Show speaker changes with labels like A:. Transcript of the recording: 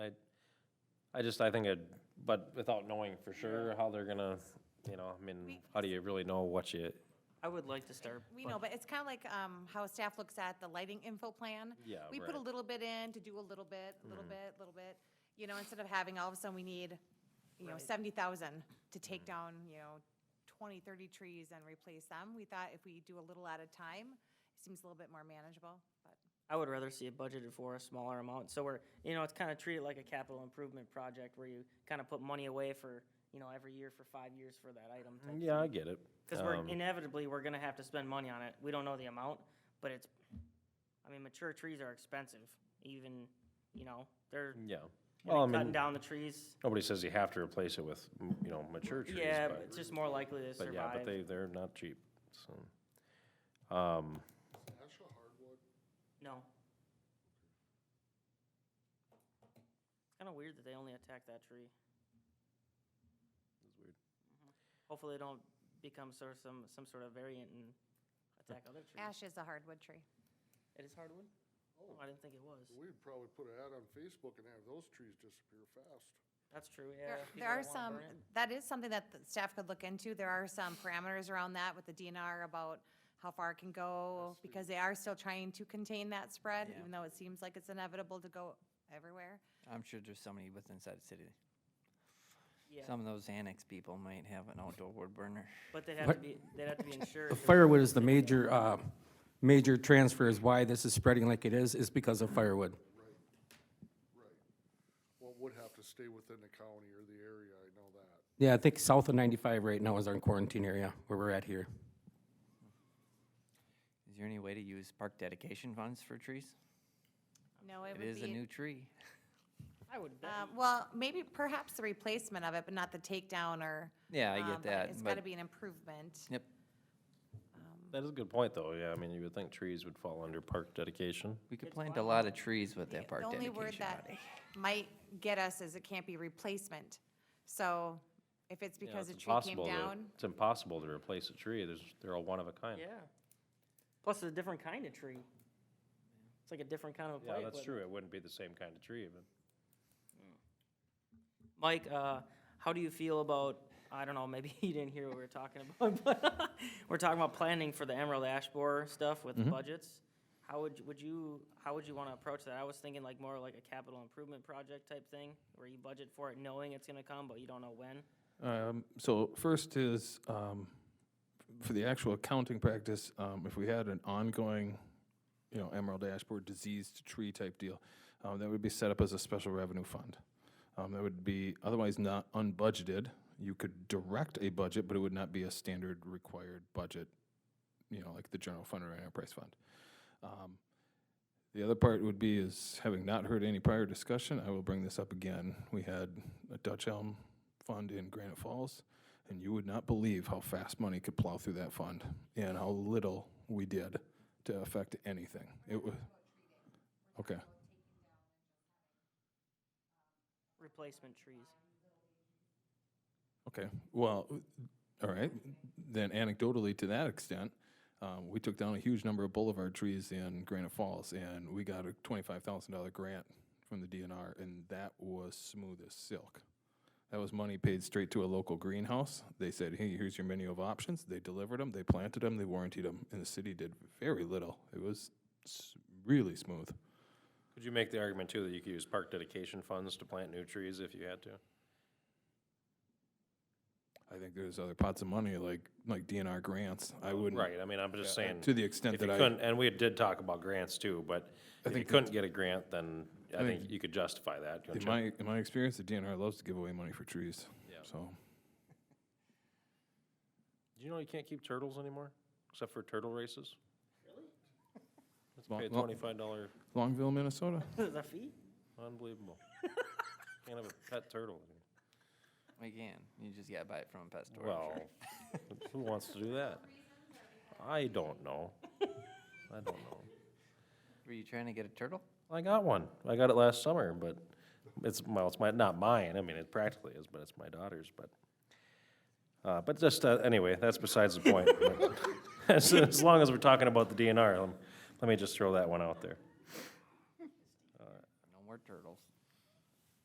A: I just, I think it, but without knowing for sure how they're gonna, you know, I mean, how do you really know what you,
B: I would like to start.
C: We know, but it's kind of like um, how staff looks at the lighting info plan.
A: Yeah,
C: We put a
A: right. Mm.
C: little bit in to do a little bit, a little bit, a little bit, you know, instead of having all of a sudden we need, you know,
B: Right.
C: seventy thousand to
A: Mm.
C: take down, you know, 20, 30 trees and replace them. We thought if we do a little at a time, it seems a little bit more manageable, but.
B: I would rather see it budgeted for a smaller amount, so we're, you know, it's kind of treated like a capital improvement project where you kind of put money away for, you know, every year for five years for that item.
A: Mm, yeah, I get it.
B: Because we're
A: Um,
B: inevitably, we're gonna have to spend money on it. We don't know the amount, but it's, I mean, mature trees are expensive, even, you know, they're
A: Yeah.
B: gonna
A: Well, I
B: be cutting
A: mean,
B: down the trees.
A: nobody says you have to replace it with, m- you know, mature trees,
B: Yeah, but
A: but,
B: it's just more likely to
A: but yeah, but
B: survive.
A: they, they're not cheap, so. Um,
D: Ash a hardwood?
B: No. It's kinda weird that they only attack that tree. Mm-hmm.
A: That's weird.
B: Hopefully they don't become sort of some, some sort of variant and attack other trees.
C: Ash is a hardwood tree.
B: It is hardwood? Oh, I didn't think it was.
D: We'd probably put an ad on Facebook and have those trees disappear fast.
B: That's true, yeah.
C: There-
B: if people
C: There are
B: don't wanna
C: some,
B: burn it.
C: that is something that the staff could look into. There are some parameters around that with the DNR about how far it can go, because they are still trying to contain that spread,
E: Yeah.
C: even though it seems like it's inevitable to go everywhere.
E: I'm sure there's somebody with inside the city.
B: Yeah.
E: Some of those annex people might have an outdoor wood burner.
B: But they'd have to be, they'd have to be insured. if-
F: Firewood is the major, uh, major transfer is why this is spreading like it is, is because of firewood.
D: Right. Well, it would have to stay within the county or the area, I know that.
F: Yeah, I think south of 95 right now is our quarantine area where we're at here.
E: Is there any way to use park dedication funds for trees?
C: No, it
E: It
C: would
E: is a
C: be,
E: new tree.
B: I would bet.
C: um, well, maybe perhaps the replacement of it, but not the takedown or.
E: Yeah, I
C: um,
E: get
C: but
E: that,
C: It's
E: but-
C: gotta be an improvement.
E: Yep.
A: that is a good point, though, yeah, I mean, you would think trees would fall under park dedication.
E: We could plant a lot of trees with that
C: The
E: park
C: only
E: dedication
C: word that
E: money.
C: might get us is it can't be replacement. So if it's
A: Yeah,
C: because a
A: it's
C: tree came
A: impossible to-
C: down.
A: It's impossible to replace a tree, there's, they're all one of a kind.
B: Yeah. Plus, it's a different kind of tree. It's like a different kind of a
A: Yeah,
B: plant.
A: that's
B: but-
A: true, it wouldn't be the same kind of tree, but.
B: Mike, uh, how do you feel about, I don't know, maybe you didn't hear what we were talking about, but we're talking about planning for the Emerald Ash Borer stuff with the budgets. How would, you- would you, how would you want to approach that? I was thinking like more like a capital improvement project type thing, where you budget for it knowing it's gonna come, but you don't know when.
G: Um, So first is, um, for the actual accounting practice, um, if we had an ongoing, you know, Emerald Ash Borer diseased tree type deal, um, that would be set up as a special revenue fund. Um, That would be otherwise not unbudgeted. You could direct a budget, but it would not be a standard required budget, you know, like the general fund or enterprise fund. Um, the other part would be is, having not heard any prior discussion, I will bring this up again. We had a Dutch Elm Fund in Granite Falls, and you would not believe how fast money could plow through that fund and how little we did to affect anything. It was, okay.
B: Replacement trees.
G: Okay, well, all right, then anecdotally to that extent, um, we took down a huge number of boulevard trees in Granite Falls, and we got a twenty-five thousand dollar grant from the DNR, and that was smooth as silk. That was money paid straight to a local greenhouse. They said, hey, here's your menu of options. They delivered them, they planted them, they warranted them, and the city did very little. It was s- really smooth.
A: Could you make the argument too that you could use park dedication funds to plant new trees if you had to?
G: I think there's other pots of money like, like DNR grants. I wouldn't.
A: Right, I mean, I'm just
G: Yeah,
A: saying.
G: to the extent
A: if you
G: that I-
A: couldn't- And we did talk about grants too, but if you
G: think
A: couldn't get a grant, then I
G: I
A: think
G: think-
A: you could justify that. don't
G: In
A: you?
G: my, in my experience, the DNR loves to give away money for trees,
A: Yeah.
G: so.
A: Do you know you can't keep turtles anymore, except for turtle races? Let's pay a
G: Well-
A: twenty-five dollar,
G: Longville, Minnesota.
B: The feet?
A: unbelievable. Can't have a pet turtle. anymore.
E: We can. You just gotta buy it from a pet store. I'm sure.
A: Well, who wants to do that? I don't know. I don't know.
E: Were you trying to get a turtle?
A: I got one. I got it last summer, but it's, well, it's my, not mine. I mean, it practically is, but it's my daughter's, but. Uh, but just, uh, anyway, that's besides the point. but As, as long as we're talking about the DNR, let, let me just throw that one out there.